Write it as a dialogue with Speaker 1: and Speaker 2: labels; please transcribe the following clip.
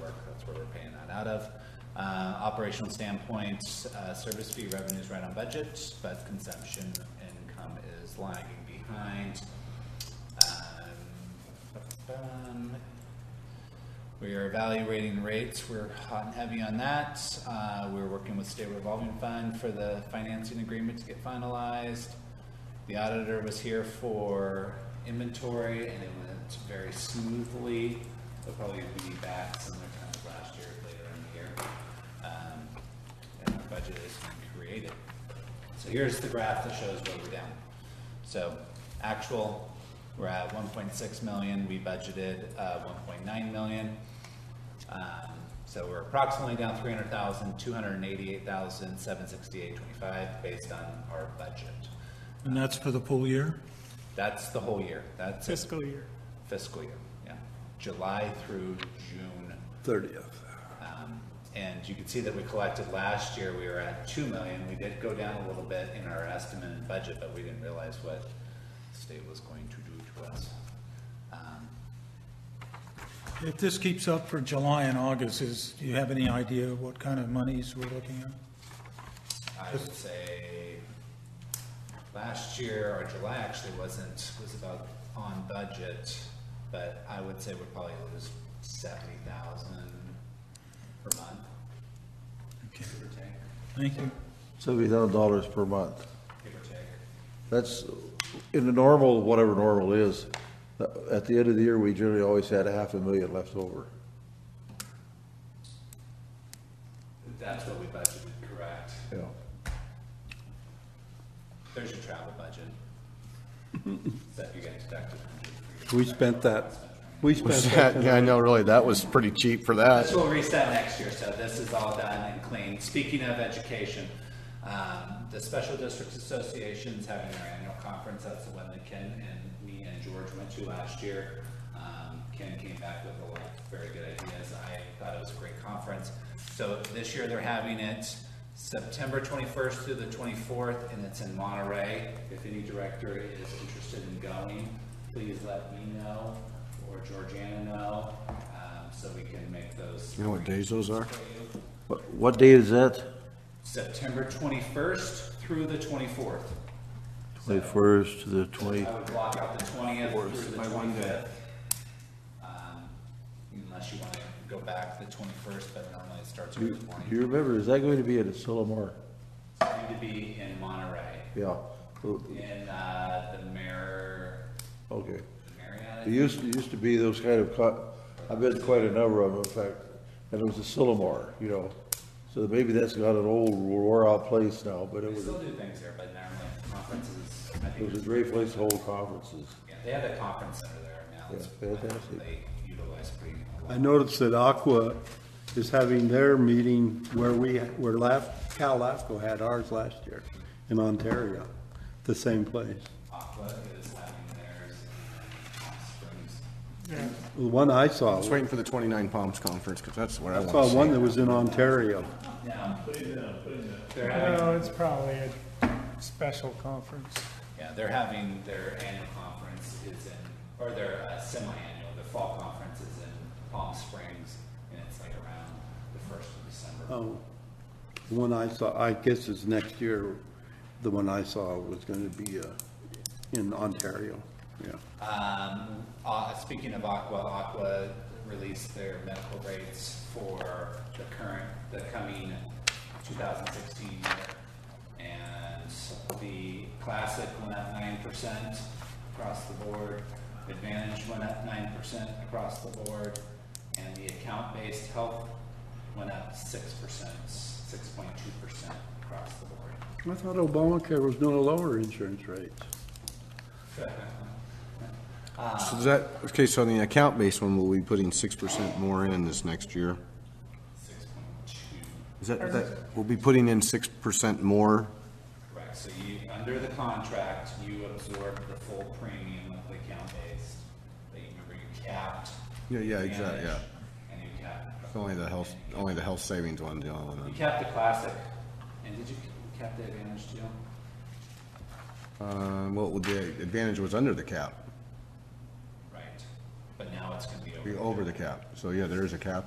Speaker 1: work. That's where we're paying that out of. Uh, Operational standpoint, uh, service fee revenue is right on budget, but consumption income is lagging behind. Um, we are evaluating rates, we're hot and heavy on that. Uh, We're working with State Revolving Fund for the financing agreement to get finalized. The auditor was here for inventory and it went very smoothly. They'll probably be back similar time as last year, later in the year. Um, And our budget is created. So here's the graph that shows where we're down. So actual, we're at one point six million, we budgeted, uh, one point nine million. Um, so we're approximately down three hundred thousand, two hundred and eighty-eight thousand, seven sixty-eight twenty-five based on our budget.
Speaker 2: And that's for the full year?
Speaker 1: That's the whole year, that's it,
Speaker 3: fiscal year.
Speaker 1: fiscal year, yeah, July through June.
Speaker 4: 30th.
Speaker 1: Um, and you can see that we collected last year, we were at two million, we did go down a little bit in our estimate and budget, but we didn't realize what the state was going to do to us. Um,
Speaker 2: If this keeps up for July and August, is, do you have any idea what kind of monies we're looking at?
Speaker 1: I would say last year, or July actually wasn't, was about on budget, but I would say we'd probably lose seventy thousand per month,
Speaker 2: Okay,
Speaker 1: give or take,
Speaker 2: Thank you.
Speaker 4: $70 per month.
Speaker 1: give or take.
Speaker 4: That's, in the normal, whatever normal is, uh, at the end of the year, we generally always had a half a million left over.
Speaker 1: That's what we budgeted, correct.
Speaker 4: Yeah.
Speaker 1: There's your travel budget. That you guys deducted. from your-
Speaker 4: We spent that, we spent that.
Speaker 5: Yeah, I know, really, that was pretty cheap for
Speaker 1: This
Speaker 5: that.
Speaker 1: will reset next year, so this is all done and clean. Speaking of education, um, the Special Districts Association is having their annual conference. That's the one that Ken and me and George went to last year. Um, Ken came back with a lot of very good ideas. I thought it was a great conference. So this year they're having it September twenty-first through the twenty-fourth, and it's in Monterey. If any director is interested in going, please let me know or Georgiana know, um, so we can make those.
Speaker 5: You know what days those are?
Speaker 4: What- What date is that?
Speaker 1: September twenty-first through the twenty-fourth.
Speaker 4: 21st to the
Speaker 1: I
Speaker 4: 20,
Speaker 1: would block out the twentieth through the twenty-fifth. Um, Unless you wanna go back the twenty-first, but normally it starts
Speaker 4: do
Speaker 1: with the
Speaker 4: you
Speaker 1: morning.
Speaker 4: remember, is that going to be at Sillamar?
Speaker 1: It's going to be in Monterey,
Speaker 4: Yeah, Oh,
Speaker 1: in, uh, the Mar-
Speaker 4: okay.
Speaker 1: Marriott.
Speaker 4: It used, it used to be those kind of, co- I've been to quite a number of them, in fact, and it was a Sillamar, you know. So maybe that's got an old, wore-out place now, but it
Speaker 1: We
Speaker 4: was,
Speaker 1: still do things there, but normally conferences, I
Speaker 4: it
Speaker 1: think,
Speaker 4: was a great place to hold conferences.
Speaker 1: yeah, they have a conference center there now. It's-
Speaker 4: Yeah, fantastic.
Speaker 1: They utilize pretty. a lot.
Speaker 6: I noticed that Aqua is having their meeting where we, where Laf, Cal LAFCO had ours last year in Ontario, the same place.
Speaker 1: Aqua is having theirs in Palm Springs.
Speaker 6: The one I saw,
Speaker 5: I was
Speaker 6: I
Speaker 5: waiting for the 29 Palms Conference, because that's what I want to
Speaker 6: saw
Speaker 5: see.
Speaker 6: one that was in Ontario.
Speaker 1: Now, they're having
Speaker 3: No, it's probably a special conference.
Speaker 1: Yeah, they're having their annual conference is in, or their uh, semi-annual, their fall conference is in Palm Springs, and it's like around the first of December.
Speaker 6: Oh, the one I saw, I guess it's next year, the one I saw was gonna be, uh, in Ontario, yeah.
Speaker 1: Um, uh, speaking of Aqua, Aqua released their medical rates for the current, the coming two thousand sixteen year. And the classic went up nine percent across the board, Advantage went up nine percent across the board, and the account-based health went up six percent, six point two percent across the board.
Speaker 6: I thought Obamacare was gonna lower insurance rates.
Speaker 5: So does that, okay, so on the account-based one, we'll be putting 6% more in this next year.
Speaker 1: Six point two
Speaker 5: Is that, that, we'll be putting in 6% more?
Speaker 1: Correct, so you, under the contract, you absorb the full premium of the account-based, but you remember you capped.
Speaker 5: Yeah, yeah, exactly, yeah.
Speaker 1: And you capped,
Speaker 5: Only the health, only the health savings one, the only
Speaker 1: you
Speaker 5: one.
Speaker 1: capped the classic, and did you cap the advantage too?
Speaker 5: Uh, well, the advantage was under the cap,
Speaker 1: Right, but now it's gonna be over.
Speaker 5: be over the cap. So yeah, there is a cap